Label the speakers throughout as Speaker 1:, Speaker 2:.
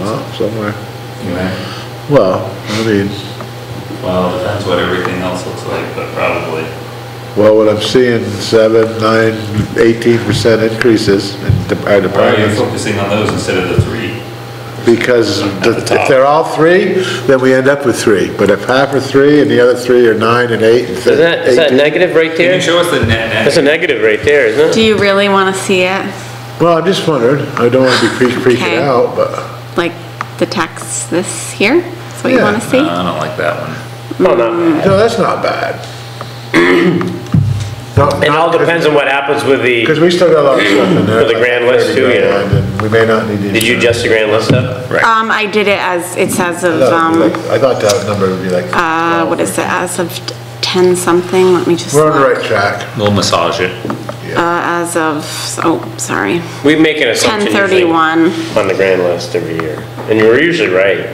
Speaker 1: up somewhere.
Speaker 2: You reckon?
Speaker 1: Well, I mean,
Speaker 2: Well, that's what everything else looks like, but probably.
Speaker 1: well, what I'm seeing, seven, nine, eighteen percent increases in de- our
Speaker 2: Why are you
Speaker 1: departments.
Speaker 2: focusing on those instead of the three?
Speaker 1: Because
Speaker 2: the
Speaker 1: the- if
Speaker 2: top.
Speaker 1: they're all three, then we end up with three. But if half are three and the other three are nine and eight and
Speaker 3: Isn't that, is that
Speaker 1: 18
Speaker 3: negative right
Speaker 2: Can you
Speaker 3: there?
Speaker 2: show us the net
Speaker 3: That's
Speaker 2: net?
Speaker 3: a negative right there, isn't
Speaker 4: Do
Speaker 3: it?
Speaker 4: you really want to see it,
Speaker 1: Well, I'm just wondering, I don't want to be pre- freaking
Speaker 4: Okay.
Speaker 1: out, but,
Speaker 4: like the text this here? That's what you
Speaker 1: Yeah.
Speaker 4: want to see?
Speaker 2: No, I don't like that one.
Speaker 4: Mm.
Speaker 3: No, Oh, no.
Speaker 1: no, that's not bad.
Speaker 3: It all depends on what happens with the,
Speaker 1: Because we still got a lot of stuff in there.
Speaker 3: With the
Speaker 1: like
Speaker 3: grand list
Speaker 1: 30
Speaker 3: too, you know.
Speaker 1: grand, and We may not need to.
Speaker 3: did you adjust the grand list up?
Speaker 1: Uh,
Speaker 4: Um, I did it as, it says
Speaker 1: I
Speaker 4: of,
Speaker 1: thought it'd be
Speaker 4: um,
Speaker 1: like- I thought that number would be like. um,
Speaker 4: uh, what is it, as of ten something, let me just
Speaker 1: We're on the
Speaker 4: look.
Speaker 1: right track.
Speaker 2: We'll massage it.
Speaker 4: Uh, as of, oh, sorry,
Speaker 3: We make an
Speaker 4: ten
Speaker 3: assumption usually on
Speaker 4: thirty-one.
Speaker 3: the grand list every year, and we're usually right.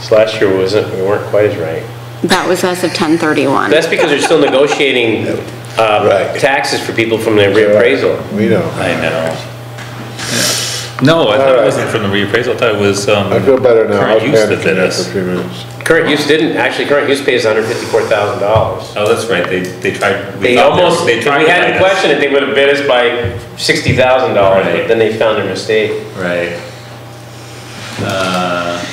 Speaker 3: This last year wasn't, we weren't quite as right.
Speaker 4: That was as of ten thirty-one.
Speaker 3: That's because they're still negotiating, uh,
Speaker 1: Right.
Speaker 3: taxes for people from their reappraisal.
Speaker 1: We know.
Speaker 2: I know. No, I thought it wasn't from the reappraisal, I thought it was, um.
Speaker 1: I feel better now. I'll
Speaker 2: Current use that
Speaker 1: panic
Speaker 2: did
Speaker 1: in
Speaker 2: us.
Speaker 1: For a few minutes.
Speaker 3: Current use didn't, actually, current use pays hundred fifty-four thousand dollars.
Speaker 2: Oh, that's right, they, they tried. we
Speaker 3: They
Speaker 2: thought were-
Speaker 3: almost,
Speaker 2: They
Speaker 3: if we
Speaker 2: tried. to
Speaker 3: hadn't
Speaker 2: bite us.
Speaker 3: questioned it, they would have bid us by sixty thousand dollars, but
Speaker 2: Right.
Speaker 3: then they found their mistake.
Speaker 2: Right. Uh,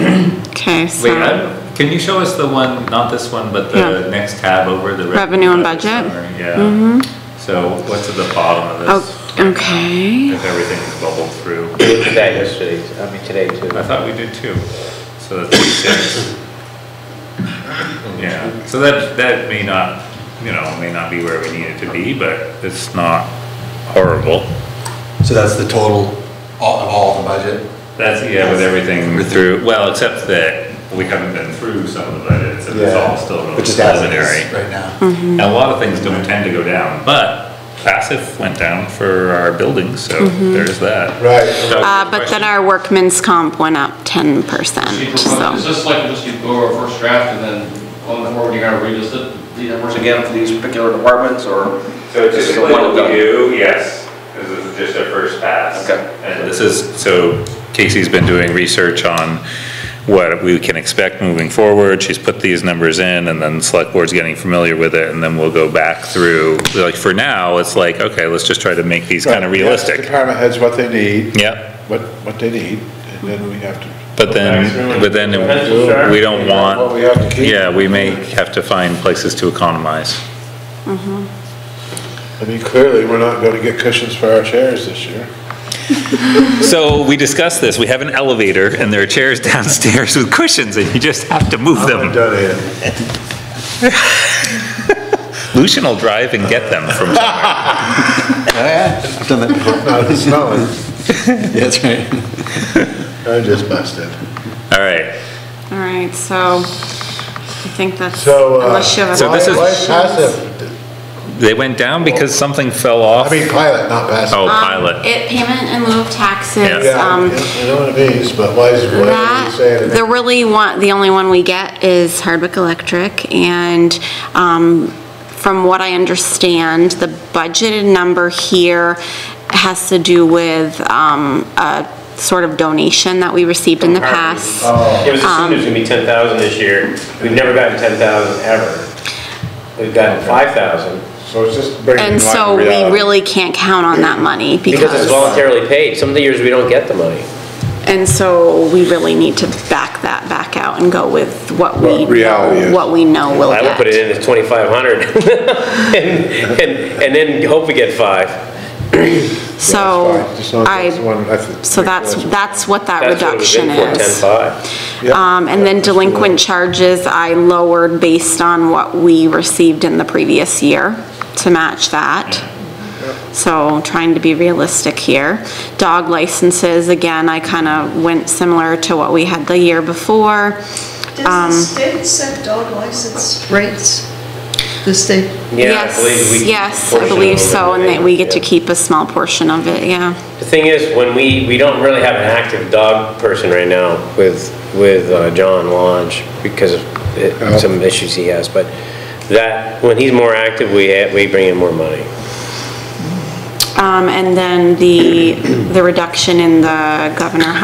Speaker 4: Okay,
Speaker 2: wait,
Speaker 4: so,
Speaker 2: I- can you show us the one, not this one, but the
Speaker 4: Yeah.
Speaker 2: next tab over the.
Speaker 4: Revenue and budget?
Speaker 2: summary? Yeah. So what's at the bottom of this?
Speaker 4: oh, okay,
Speaker 2: If everything's bubbled through.
Speaker 3: We did that yesterday, I mean, today too.
Speaker 2: I thought we did too. So that's six. Yeah, so that, that may not, you know, may not be where we need it to be, but it's not horrible.
Speaker 5: So that's the total all- of all the budget?
Speaker 2: That's, yeah, with everything through, well, except that we haven't been through some of the budgets, and it's all still
Speaker 5: Yeah.
Speaker 2: really
Speaker 5: Which is as it
Speaker 2: preliminary.
Speaker 5: is right now.
Speaker 2: And a lot of things don't tend to go down, but passive went down for our buildings, so there's that.
Speaker 1: Right.
Speaker 4: uh, but then our workman's comp went up ten percent, so.
Speaker 6: Is this like just you go over a first draft and then on the board, you gotta revisit the numbers again for these particular departments or? This is a one and done?
Speaker 2: do, yes, because this is just our first pass.
Speaker 6: Okay.
Speaker 2: And this is, so Casey's been doing research on what we can expect moving forward. She's put these numbers in and then select board's getting familiar with it and then we'll go back through. Like for now, it's like, okay, let's just try to make these kind of
Speaker 1: Right, yeah,
Speaker 2: realistic.
Speaker 1: Department heads what they need,
Speaker 2: Yep,
Speaker 1: what, what they need, and then we have to.
Speaker 2: but then, but then we don't
Speaker 1: What we
Speaker 2: want,
Speaker 1: have to keep.
Speaker 2: yeah, we may have to find places to economize.
Speaker 1: I mean, clearly, we're not gonna get cushions for our chairs this year.
Speaker 2: So we discussed this, we have an elevator and there are chairs downstairs with cushions and you just have to move
Speaker 1: I'm
Speaker 2: them.
Speaker 1: done here.
Speaker 2: Lucian will drive and get them from
Speaker 5: Oh, yeah, I've done that before.
Speaker 1: Not smelling.
Speaker 5: Yeah, That's right.
Speaker 1: I'm just busted.
Speaker 2: All right,
Speaker 4: All right, so I think that's,
Speaker 1: So, uh,
Speaker 4: unless you have.
Speaker 2: So
Speaker 1: why,
Speaker 2: this is-
Speaker 1: why passive?
Speaker 2: they went down because something fell off?
Speaker 1: I mean, pilot, not passive.
Speaker 2: Oh,
Speaker 4: Um,
Speaker 2: pilot.
Speaker 4: It, payment in lieu of taxes,
Speaker 2: Yeah.
Speaker 1: Yeah,
Speaker 4: um,
Speaker 1: you know what it means, but why is, why are you saying
Speaker 4: that,
Speaker 1: it?
Speaker 4: the really one, the only one we get is Hardwick Electric, and, um, from what I understand, the budgeted number here has to do with, um, a sort of donation that we received in the past.
Speaker 3: It was assumed it was gonna be ten thousand this year. We've never gotten ten thousand ever. We've gotten five thousand
Speaker 1: So it's just bringing.
Speaker 4: And
Speaker 1: light to
Speaker 4: so we
Speaker 1: reality.
Speaker 4: really can't count on that money
Speaker 3: because it's voluntarily paid. Some of the years we don't get the money.
Speaker 4: And so we really need to back that back out and go with what we
Speaker 1: What reality
Speaker 4: know,
Speaker 1: is.
Speaker 4: what we know we'll
Speaker 3: I would put it
Speaker 4: get.
Speaker 3: in as twenty-five hundred and, and, and then hope we get five.
Speaker 4: So
Speaker 1: Fine, just not- that's the
Speaker 4: I,
Speaker 1: one- that's-
Speaker 4: so that's, that's what that
Speaker 3: That's what it was in
Speaker 4: reduction
Speaker 3: for,
Speaker 4: is.
Speaker 3: ten-five.
Speaker 1: Yep.
Speaker 4: Um, and then delinquent charges I lowered based on what we received in the previous year to match that. So trying to be realistic here. Dog licenses, again, I kind of went similar to what we had the year before.
Speaker 7: Does the state set dog license rates? The state?
Speaker 3: Yeah, I believe we-
Speaker 4: Yes, yes, I believe so, and that we get to
Speaker 3: Yeah.
Speaker 4: keep a small portion of it, yeah.
Speaker 3: The thing is, when we, we don't really have an active dog person right now with, with uh, John Lodge because of it- some issues he has, but that, when he's more active, we, ha- we bring in more money.
Speaker 4: Um, and then the, the reduction in the governor